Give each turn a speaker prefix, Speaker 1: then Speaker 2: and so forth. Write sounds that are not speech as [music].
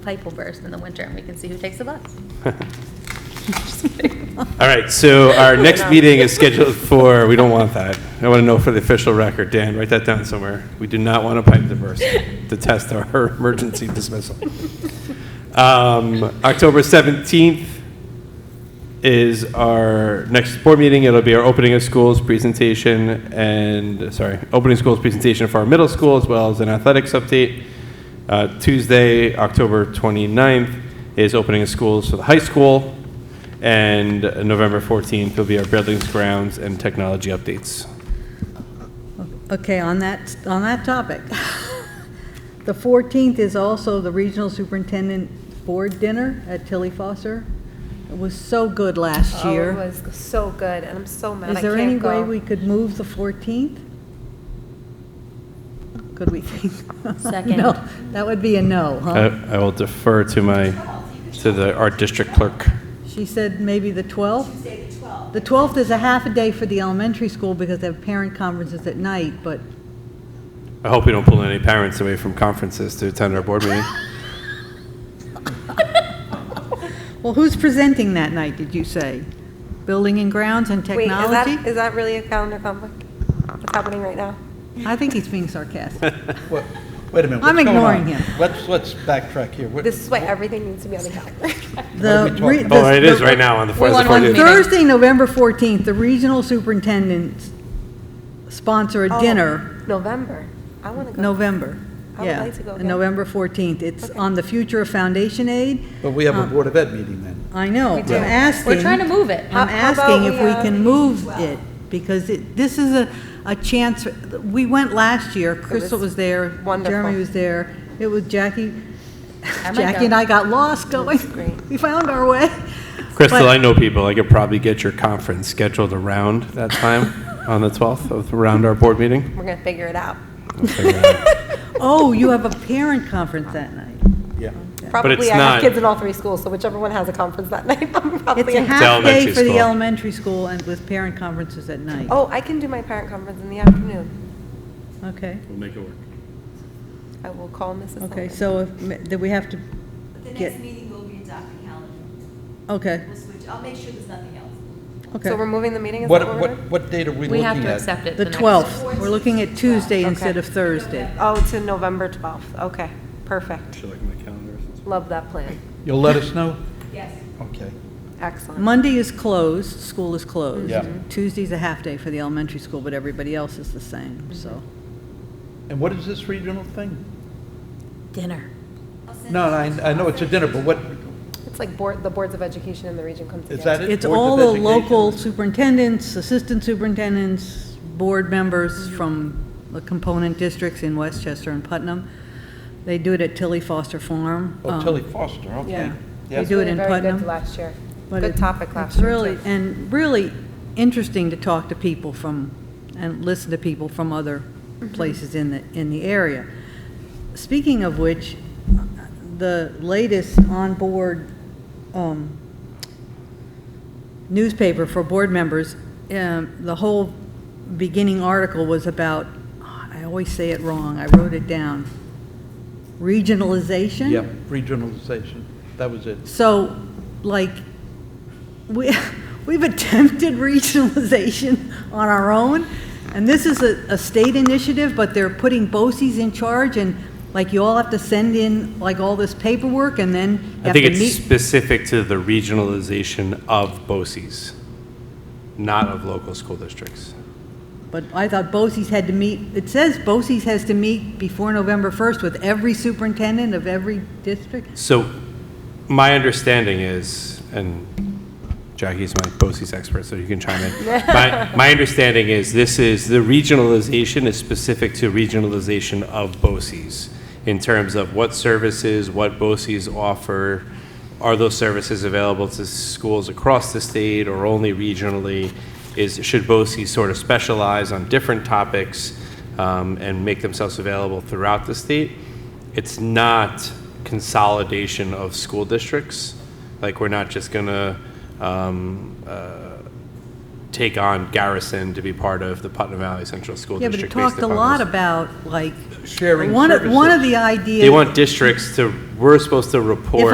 Speaker 1: pipe will burst in the winter and we can see who takes the bus.
Speaker 2: All right, so our next meeting is scheduled for, we don't want that. I want to know for the official record, Dan, write that down somewhere. We do not want a pipe diverse to test our [laughs] emergency dismissal. Um, October 17th is our next board meeting. It'll be our opening of schools presentation and, sorry, opening schools presentation for our middle school as well as an athletics update. Uh, Tuesday, October 29th is opening of schools for the high school. And November 14th will be our buildings, grounds, and technology updates.
Speaker 3: Okay, on that, on that topic, [laughs] the 14th is also the Regional Superintendent Board Dinner at Tilly Foster. It was so good last
Speaker 4: Oh, it
Speaker 3: year.
Speaker 4: was so good, and I'm so mad I
Speaker 3: Is there any
Speaker 4: can't
Speaker 3: way we
Speaker 4: go.
Speaker 3: could move the 14th? Could we [laughs] think?
Speaker 1: Second.
Speaker 3: No, that would be a no, huh?
Speaker 2: I I will defer to my, to the art district clerk.
Speaker 3: She said maybe the 12th? Tuesday, the 12th. The 12th is a half a day for the elementary school because they have parent conferences at night, but
Speaker 2: I hope we don't pull any parents away from conferences to attend our board meeting.
Speaker 3: Well, who's presenting that night, did you say? Building and grounds and
Speaker 4: Wait, is that,
Speaker 3: technology?
Speaker 4: is that really a calendar conflict? What's happening right now?
Speaker 3: I think he's
Speaker 2: [laughs]
Speaker 3: being sarcastic.
Speaker 5: Wait wait a minute.
Speaker 3: I'm
Speaker 5: what's going on?
Speaker 3: ignoring him.
Speaker 5: Let's, let's backtrack here. What-
Speaker 4: This is why everything needs to be on the calendar.
Speaker 3: [laughs] The
Speaker 5: talking
Speaker 3: re-
Speaker 5: about?
Speaker 2: Oh,
Speaker 3: the-
Speaker 2: it is right now on the 4th.
Speaker 3: the- Thursday, November 14th, the regional superintendents sponsor a
Speaker 4: Oh,
Speaker 3: dinner,
Speaker 4: November. I want to go.
Speaker 3: November.
Speaker 4: I would
Speaker 3: Yeah,
Speaker 4: like to go
Speaker 3: and
Speaker 4: again.
Speaker 3: November 14th. It's
Speaker 4: Okay.
Speaker 3: on the future of foundation aid.
Speaker 5: But we have a
Speaker 3: Uh,
Speaker 5: Board of Ed meeting then.
Speaker 3: I know, I'm
Speaker 4: do. We're
Speaker 3: asking.
Speaker 1: We're trying to move it.
Speaker 3: I'm
Speaker 4: How- how about
Speaker 3: asking if
Speaker 4: we,
Speaker 3: we
Speaker 4: uh,
Speaker 3: can move it, because it, this is a, a chance, we went last year, Crystal
Speaker 4: was
Speaker 3: was there,
Speaker 4: wonderful.
Speaker 3: Jeremy was there, it was Jackie,
Speaker 1: might
Speaker 3: Jackie
Speaker 1: go.
Speaker 3: and I got lost going,
Speaker 4: great.
Speaker 3: [laughs] we found our way.
Speaker 2: Crystal,
Speaker 3: But-
Speaker 2: I know people, I could probably get your conference scheduled around that [laughs] time, on the 12th, of- around our board meeting.
Speaker 4: We're going to figure it
Speaker 3: [laughs]
Speaker 4: out.
Speaker 2: We'll figure it out.
Speaker 3: Oh, you have a parent conference that night.
Speaker 5: Yeah.
Speaker 2: it's
Speaker 4: Probably I
Speaker 2: not-
Speaker 4: have kids in all three schools, so whichever one has a conference that [laughs] night, I'm
Speaker 3: It's
Speaker 4: probably.
Speaker 3: a
Speaker 4: in.
Speaker 3: half day
Speaker 2: elementary
Speaker 3: for the
Speaker 2: school.
Speaker 3: elementary school and with parent conferences at night.
Speaker 4: Oh, I can do my parent conference in the afternoon.
Speaker 3: Okay,
Speaker 2: We'll make it work.
Speaker 4: I will call Mrs.
Speaker 3: okay,
Speaker 4: Sullivan.
Speaker 3: so, if- do we have to
Speaker 6: But the
Speaker 3: get,
Speaker 6: next meeting will be in Dr. Callen.
Speaker 3: okay,
Speaker 6: We'll switch, I'll make sure there's nothing else.
Speaker 3: okay.
Speaker 4: So we're moving the meeting, is that
Speaker 5: What,
Speaker 4: what we're doing?
Speaker 5: what, what date are
Speaker 1: We
Speaker 5: we looking
Speaker 1: have to
Speaker 5: at?
Speaker 1: accept it.
Speaker 3: The
Speaker 1: next-
Speaker 3: 12th, we're looking at Tuesday
Speaker 4: Okay.
Speaker 3: instead of Thursday.
Speaker 4: Oh, to November 12th. Okay, perfect. Love that plan.
Speaker 5: You'll let us know?
Speaker 6: Yes.
Speaker 5: Okay.
Speaker 4: Excellent.
Speaker 3: Monday is closed, school is closed.
Speaker 5: Yeah.
Speaker 3: Tuesday's a half-day for the elementary school, but everybody else is the same, so.
Speaker 5: And what is this regional thing?
Speaker 1: Dinner.
Speaker 6: I'll send
Speaker 5: No,
Speaker 6: it.
Speaker 5: I, I know it's a dinner, but what,
Speaker 4: It's like board, the boards of education in the region come together.
Speaker 5: is that it?
Speaker 3: It's
Speaker 5: Boards of
Speaker 3: all the local
Speaker 5: Education?
Speaker 3: superintendents, assistant superintendents, board members from the component districts in Westchester and Putnam. They do it at Tilly Foster Farm.
Speaker 5: Oh,
Speaker 3: um,
Speaker 5: Tilly Foster, okay.
Speaker 3: yeah.
Speaker 5: Yes.
Speaker 3: They do it in
Speaker 4: Very
Speaker 3: Putnam.
Speaker 4: good last year.
Speaker 3: But
Speaker 4: Good
Speaker 3: it-
Speaker 4: topic last
Speaker 3: It's
Speaker 4: year.
Speaker 3: really,
Speaker 4: too.
Speaker 3: and really interesting to talk to people from, and listen to people from other
Speaker 4: Mm-hmm.
Speaker 3: places in the, in the area. Speaking of which, the latest on-board um, newspaper for board members, um, the whole beginning article was about, I always say it wrong, I wrote it down, regionalization?
Speaker 5: Yeah, regionalization, that was it.
Speaker 3: So, like, we, [laughs] we've attempted regionalization on our own, and this is a, a state initiative, but they're putting BOCES in charge, and like, you all have to send in, like, all this paperwork, and then you
Speaker 2: I
Speaker 3: have to
Speaker 2: think it's
Speaker 3: meet.
Speaker 2: specific to the regionalization of BOCES, not of local school districts.
Speaker 3: But I thought BOCES had to meet, it says BOCES has to meet before November 1st with every superintendent of every district.
Speaker 2: So my understanding is, and Jackie's my BOCES expert, so you can chime in. My, my understanding is this is, the regionalization is specific to regionalization of BOCES in terms of what services, what BOCES offer, are those services available to schools across the state or only regionally? Is, should BOCES sort of specialize on different topics um, and make themselves available throughout the state? it's not consolidation of school districts. Like, we're not just gonna um, uh, take on Garrison to be part of the Putnam Valley Central School
Speaker 3: Yeah, but
Speaker 2: District.
Speaker 3: it
Speaker 2: based
Speaker 3: talked a
Speaker 2: upon
Speaker 3: lot
Speaker 2: this.
Speaker 3: about, like,
Speaker 5: Sharing
Speaker 3: one of, one of
Speaker 5: services.
Speaker 3: the ideas.
Speaker 2: They want districts to, we're supposed to report